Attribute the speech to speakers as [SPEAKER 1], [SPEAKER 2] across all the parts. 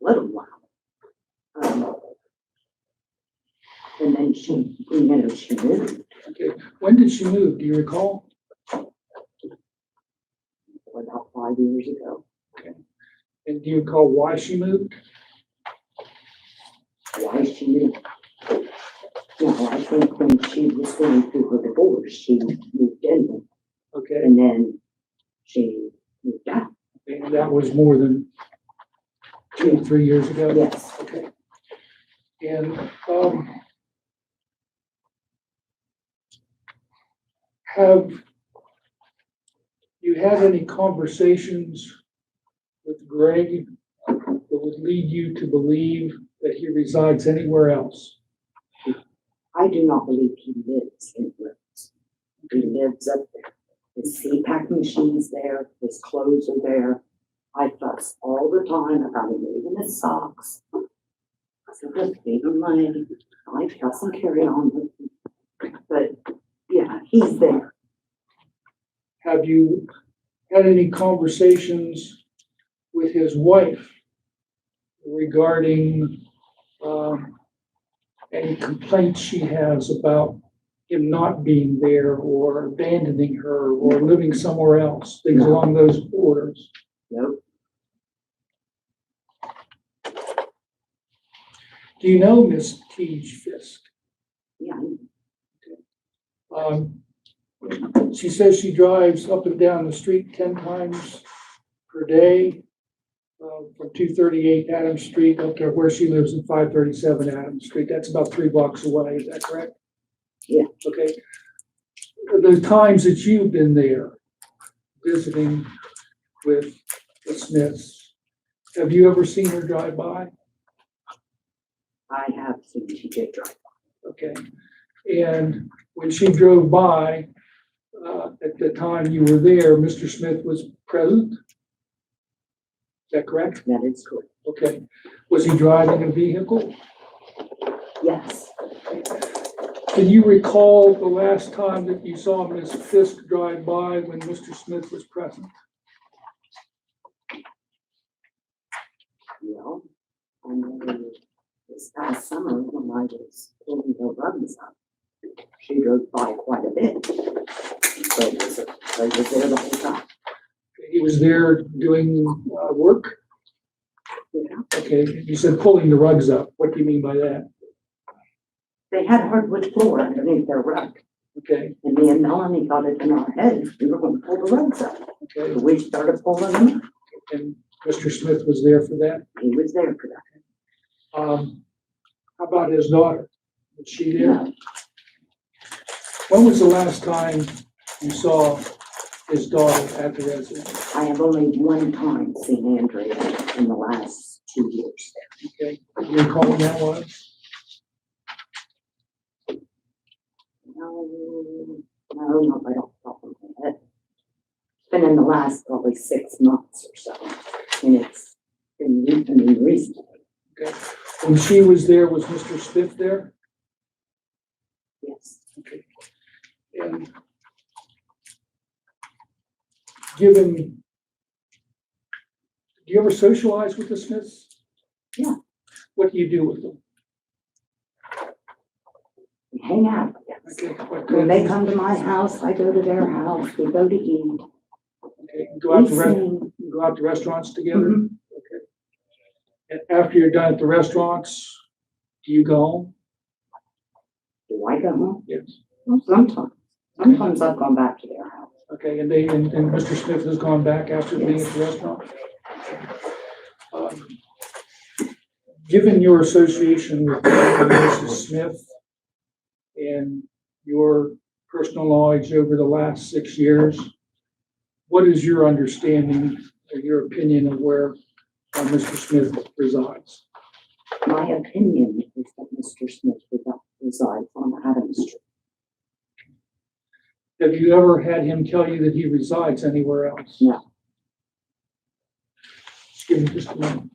[SPEAKER 1] little while. Um, And then she, you know, she moved,
[SPEAKER 2] When did she move? Do you recall?
[SPEAKER 1] about five years ago.
[SPEAKER 2] And do you recall why she moved?
[SPEAKER 1] Why she moved? Well, I think when she was going through her divorce, she moved in
[SPEAKER 2] Okay,
[SPEAKER 1] and then she moved out.
[SPEAKER 2] and that was more than two, three years ago.
[SPEAKER 1] Yes.
[SPEAKER 2] Okay. And, um, have you had any conversations with Greg that would lead you to believe that he resides anywhere else?
[SPEAKER 1] I do not believe he lives in Rhodes. He lives up there. His CPAC machine's there, his clothes are there. I fuss all the time about him leaving his socks. I said, just leave him alone. I fuss and carry on with him. But, yeah, he's there.
[SPEAKER 2] Have you had any conversations with his wife regarding, um, any complaints she has about him not being there or abandoning her or living somewhere else, things
[SPEAKER 1] No.
[SPEAKER 2] along those borders?
[SPEAKER 1] Nope,
[SPEAKER 2] Do you know Miss Teej Fisk?
[SPEAKER 1] yeah,
[SPEAKER 2] Um, she says she drives up and down the street ten times per day, uh, from two thirty-eight Adams Street up to where she lives in five thirty-seven Adams Street. That's about three blocks away, is that correct?
[SPEAKER 1] Yeah.
[SPEAKER 2] Okay. The times that you've been there visiting with the Smiths, have you ever seen her drive by?
[SPEAKER 1] I have seen she did drive.
[SPEAKER 2] Okay, and when she drove by, uh, at the time you were there, Mr. Smith was present? Is that correct?
[SPEAKER 1] That is correct.
[SPEAKER 2] Okay, was he driving a vehicle?
[SPEAKER 1] Yes,
[SPEAKER 2] Can you recall the last time that you saw Ms. Fisk drive by when Mr. Smith was present?
[SPEAKER 1] well, and then this past summer when I was pulling her rugs up, she drove by quite a bit. So it was, so it was there the whole time.
[SPEAKER 2] He was there doing, uh, work?
[SPEAKER 1] Yeah.
[SPEAKER 2] Okay, you said pulling the rugs up, what do you mean by that?
[SPEAKER 1] They had hardwood floor underneath their rug,
[SPEAKER 2] Okay,
[SPEAKER 1] and me and Melanie got it in our heads, we were gonna pull the rugs up.
[SPEAKER 2] okay,
[SPEAKER 1] So we started pulling them, up.
[SPEAKER 2] and Mr. Smith was there for that?
[SPEAKER 1] he was there for that.
[SPEAKER 2] Um, how about his daughter? Was she there?
[SPEAKER 1] No,
[SPEAKER 2] When was the last time you saw his daughter at the residence?
[SPEAKER 1] I have only one time seen Andrea in the last two years.
[SPEAKER 2] Okay, do you recall when that was?
[SPEAKER 1] No, no, not right off the top of my head. It's Been in the last probably six months or so, and it's been, re- I mean, recently,
[SPEAKER 2] When she was there, was Mr. Smith there?
[SPEAKER 1] yes.
[SPEAKER 2] Okay. And given, do you ever socialize with the Smiths?
[SPEAKER 1] Yeah.
[SPEAKER 2] What do you do with them?
[SPEAKER 1] We hang out, yes.
[SPEAKER 2] Okay, what
[SPEAKER 1] When
[SPEAKER 2] kind
[SPEAKER 1] they
[SPEAKER 2] of-
[SPEAKER 1] come to my house, I go to their house, we go to eat.
[SPEAKER 2] okay, Go out to,
[SPEAKER 1] we
[SPEAKER 2] re-
[SPEAKER 1] sing.
[SPEAKER 2] go out to restaurants together?
[SPEAKER 1] Mhm.
[SPEAKER 2] Okay. And after you're done at the restaurants, do you go home?
[SPEAKER 1] Do I go home?
[SPEAKER 2] Yes.
[SPEAKER 1] Well, Sometimes, sometimes I've gone back to their house.
[SPEAKER 2] Okay, and they, and, and Mr. Smith has gone back after being at
[SPEAKER 1] Yes.
[SPEAKER 2] the restaurant? Um, Given your association with Mrs. Smith and your personal knowledge over the last six years, what is your understanding or your opinion of where uh, Mr. Smith resides?
[SPEAKER 1] My opinion is that Mr. Smith resi- resides on Adams Street.
[SPEAKER 2] Have you ever had him tell you that he resides anywhere else?
[SPEAKER 1] No.
[SPEAKER 2] Just Give me just a moment.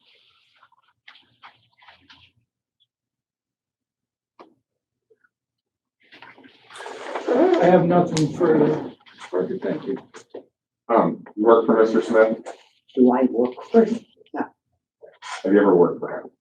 [SPEAKER 2] I have nothing further. Parker, thank you.
[SPEAKER 3] Um, you work for Mr. Smith?
[SPEAKER 1] Do I work for him?
[SPEAKER 3] Have Have you ever worked for him?